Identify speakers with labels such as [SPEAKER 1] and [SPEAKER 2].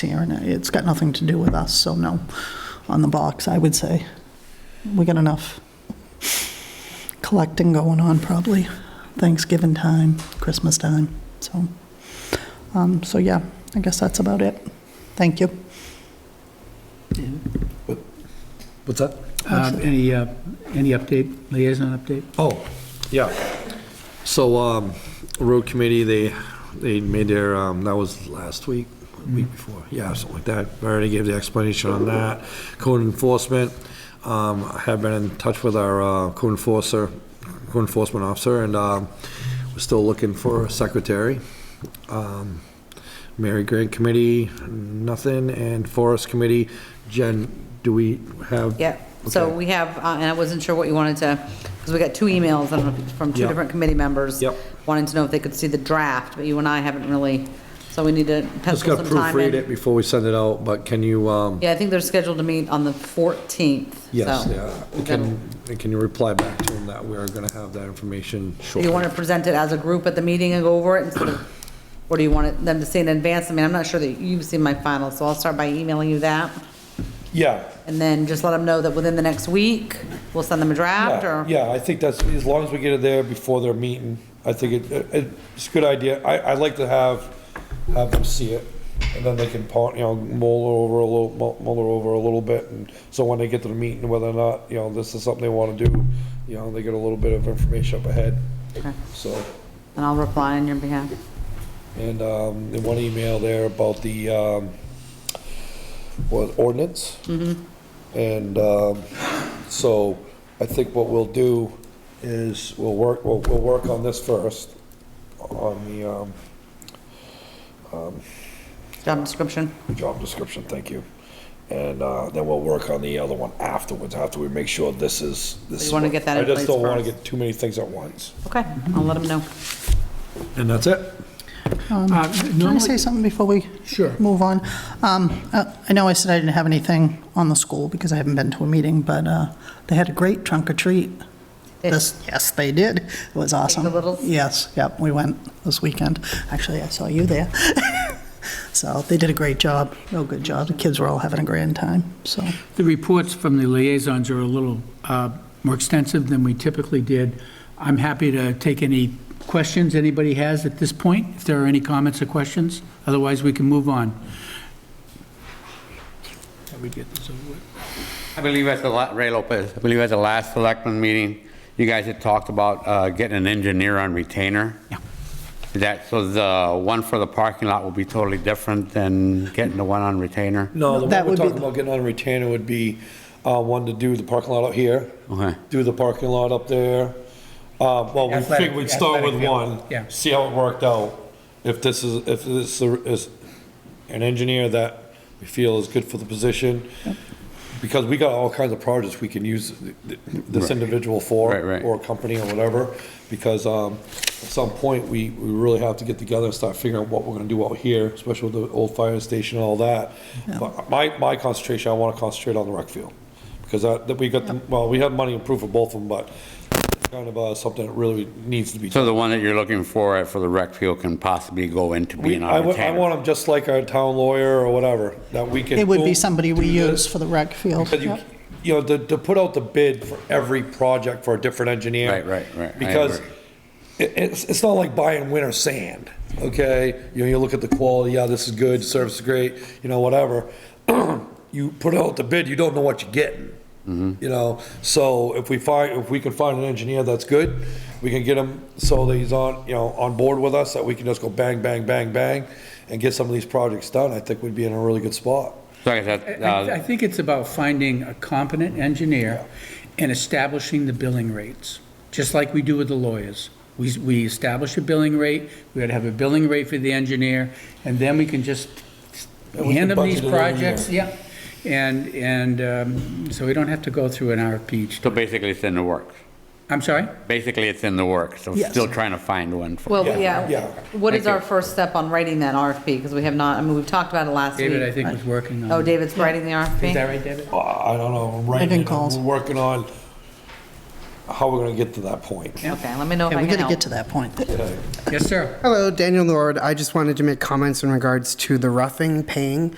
[SPEAKER 1] here, and it's got nothing to do with us, so no, on the box, I would say. We got enough collecting going on, probably Thanksgiving time, Christmas time, so. um, So, yeah, I guess that's about it. Thank you.
[SPEAKER 2] What's that?
[SPEAKER 3] Um, Any, uh, any update, liaison update?
[SPEAKER 2] Oh, yeah. So, um, road committee, they, they made their, um, that was last week, week before, yeah, something like that. I already gave the explanation on that. Code enforcement, um, I have been in touch with our, uh, code enforcer, code enforcement officer, and, um, we're still looking for a secretary. Um, Mary Grant Committee, nothing, and Forest Committee, Jen, do we have?
[SPEAKER 4] Yeah, so
[SPEAKER 2] Okay.
[SPEAKER 4] we have, uh, and I wasn't sure what you wanted to, because we got two emails, I don't know, if it's from two
[SPEAKER 2] Yeah.
[SPEAKER 4] different committee members.
[SPEAKER 2] Yep.
[SPEAKER 4] Wanting to know if they could see the draft, but you and I haven't really, so we need to
[SPEAKER 2] Just
[SPEAKER 4] pencil
[SPEAKER 2] gotta
[SPEAKER 4] some time
[SPEAKER 2] proofread it
[SPEAKER 4] in.
[SPEAKER 2] before we send it out, but can you, um,
[SPEAKER 4] Yeah, I think they're scheduled to meet on the 14th, so.
[SPEAKER 2] Yes, yeah.
[SPEAKER 4] that'll-
[SPEAKER 2] Can, and can you reply back to him that we're gonna have that information
[SPEAKER 4] Do
[SPEAKER 2] shortly?
[SPEAKER 4] you want to present it as a group at the meeting and go over it instead of, or do you want it- them to see in advance? I mean, I'm not sure that you've seen my final, so I'll start by emailing you that.
[SPEAKER 5] Yeah,
[SPEAKER 4] And then just let them know that within the next week, we'll send them a draft
[SPEAKER 5] yeah,
[SPEAKER 4] or.
[SPEAKER 5] yeah, I think that's, as long as we get it there before their meeting, I think it, it- it's a good idea. I, I'd like to have, have them see it, and then they can, pon- you know, mull over a little, mull mull over a little bit, and so when they get to the meeting, whether or not, you know, this is something they wanna do, you know, they get a little bit of information up ahead.
[SPEAKER 4] Okay.
[SPEAKER 5] So,
[SPEAKER 4] And I'll reply on your behalf.
[SPEAKER 5] and, um, in one email there about the, um, what, ordinance?
[SPEAKER 4] Mm-hmm.
[SPEAKER 5] And um, so I think what we'll do is we'll work, we'll, we'll work on this first, on the um,
[SPEAKER 4] Job description.
[SPEAKER 5] job description, thank you. And uh, then we'll work on the other one afterwards, after we make sure this is. this is
[SPEAKER 4] wanna
[SPEAKER 5] what-
[SPEAKER 4] get that in
[SPEAKER 5] I just
[SPEAKER 4] place
[SPEAKER 5] don't want to
[SPEAKER 4] first.
[SPEAKER 5] get too many things at once.
[SPEAKER 4] Okay, I'll let them know.
[SPEAKER 2] And that's it?
[SPEAKER 3] Uh,
[SPEAKER 1] Can I
[SPEAKER 3] normally-
[SPEAKER 1] say something before we
[SPEAKER 3] Sure.
[SPEAKER 1] move on? Um, uh, I know I said I didn't have anything on the school because I haven't been to a meeting, but uh, they had a great trunk or treat.
[SPEAKER 4] Did-
[SPEAKER 1] This, yes, they did. It was awesome.
[SPEAKER 4] littles?
[SPEAKER 1] Yes, yep, we went this weekend. Actually, I saw you there. So they did a great job, real good job. The kids were all having a grand time, so.
[SPEAKER 3] The reports from the liaisons are a little uh, more extensive than we typically did. I'm happy to take any questions anybody has at this point, if there are any comments or questions. Otherwise, we can move on. Let me get this over with.
[SPEAKER 6] I believe at the, la- Ray Lopez, I believe at the last selectman meeting, you guys had talked about uh, getting an engineer on retainer.
[SPEAKER 3] Yeah.
[SPEAKER 6] Is That, so the one for the parking lot will be totally different than getting the one on retainer?
[SPEAKER 2] No, the
[SPEAKER 1] That
[SPEAKER 2] one we're
[SPEAKER 1] would be
[SPEAKER 2] talking
[SPEAKER 1] the-
[SPEAKER 2] about getting on retainer would be, uh, one to do the parking lot out here.
[SPEAKER 6] Okay.
[SPEAKER 2] Do the parking lot up there. Uh, well, we
[SPEAKER 3] Athletic-
[SPEAKER 2] figured we'd start with
[SPEAKER 3] athletic field,
[SPEAKER 2] one.
[SPEAKER 3] yeah.
[SPEAKER 5] See how it worked out. If this is, if this is an engineer that we feel is good for the position. Because we got all kinds of projects we can use th- th- this
[SPEAKER 6] Right.
[SPEAKER 5] individual for.
[SPEAKER 6] Right, right.
[SPEAKER 5] Or a company or whatever, because, um, at some point, we, we really have to get together and start figuring out what we're gonna do out here, especially with the old fire station and all that. But my, my concentration, I wanna concentrate on the rec field, because that, that we got, the- well, we have money approved for both of them, but it's kind of, uh, something that really needs to be
[SPEAKER 6] So the one that you're looking for at- for the rec field can possibly go into being
[SPEAKER 5] I
[SPEAKER 6] on
[SPEAKER 5] wa- I want
[SPEAKER 6] retainer?
[SPEAKER 5] them just like our town lawyer or whatever, that we can.
[SPEAKER 1] It would be
[SPEAKER 5] boom,
[SPEAKER 1] somebody we
[SPEAKER 5] do
[SPEAKER 1] use
[SPEAKER 5] this.
[SPEAKER 1] for the rec field.
[SPEAKER 5] Because you,
[SPEAKER 1] Yep.
[SPEAKER 5] you know, to, to put out the bid for every project for a different engineer.
[SPEAKER 6] Right, right, right. I
[SPEAKER 5] Because
[SPEAKER 6] agree.
[SPEAKER 5] it, it's, it's not like buying winter sand, okay? You know, you look at the quality, yeah, this is good, service is great, you know, whatever. You put out the bid, you don't know what you're getting.
[SPEAKER 6] Mm-hmm.
[SPEAKER 5] You know, so if we find, if we can find an engineer that's good, we can get him so that he's on, you know, on board with us, that we can just go bang, bang, bang, bang, and get some of these projects done, I think we'd be in a really good spot.
[SPEAKER 6] So I guess that,
[SPEAKER 3] I I
[SPEAKER 6] uh,
[SPEAKER 3] think it's about finding a competent engineer and establishing the billing rates, just like we do with the lawyers. We, we establish a billing rate, we gotta have a billing rate for the engineer, and then we can just
[SPEAKER 5] And we can
[SPEAKER 3] hand them these
[SPEAKER 5] budget it every
[SPEAKER 3] projects, yeah. And, and, um, so we don't have to go through an RFP each.
[SPEAKER 6] so basically it's in the works.
[SPEAKER 3] I'm sorry?
[SPEAKER 6] Basically, it's in the works, so
[SPEAKER 1] Yes.
[SPEAKER 6] still trying to find one. for-
[SPEAKER 4] Well,
[SPEAKER 5] Yeah, yeah.
[SPEAKER 4] yeah, what is
[SPEAKER 6] Thank
[SPEAKER 4] our
[SPEAKER 6] you.
[SPEAKER 4] first step on writing that RFP? Because we have not, I mean, we've talked about it last week.
[SPEAKER 3] David, I think, was working on.
[SPEAKER 4] Oh,
[SPEAKER 3] it.
[SPEAKER 4] David's writing the RFP?
[SPEAKER 3] Is that right, David?
[SPEAKER 5] I don't know, I'm writing,
[SPEAKER 1] Making
[SPEAKER 5] it.
[SPEAKER 1] calls.
[SPEAKER 5] we're working on how we're gonna get to that point.
[SPEAKER 4] Okay, let me know if
[SPEAKER 1] Yeah,
[SPEAKER 4] Oh, I
[SPEAKER 1] we
[SPEAKER 4] can
[SPEAKER 1] gotta get
[SPEAKER 4] help.
[SPEAKER 1] to that point.
[SPEAKER 3] Yes, sir.
[SPEAKER 7] Hello, Daniel Lord. I just wanted to make comments in regards to the roughing paying.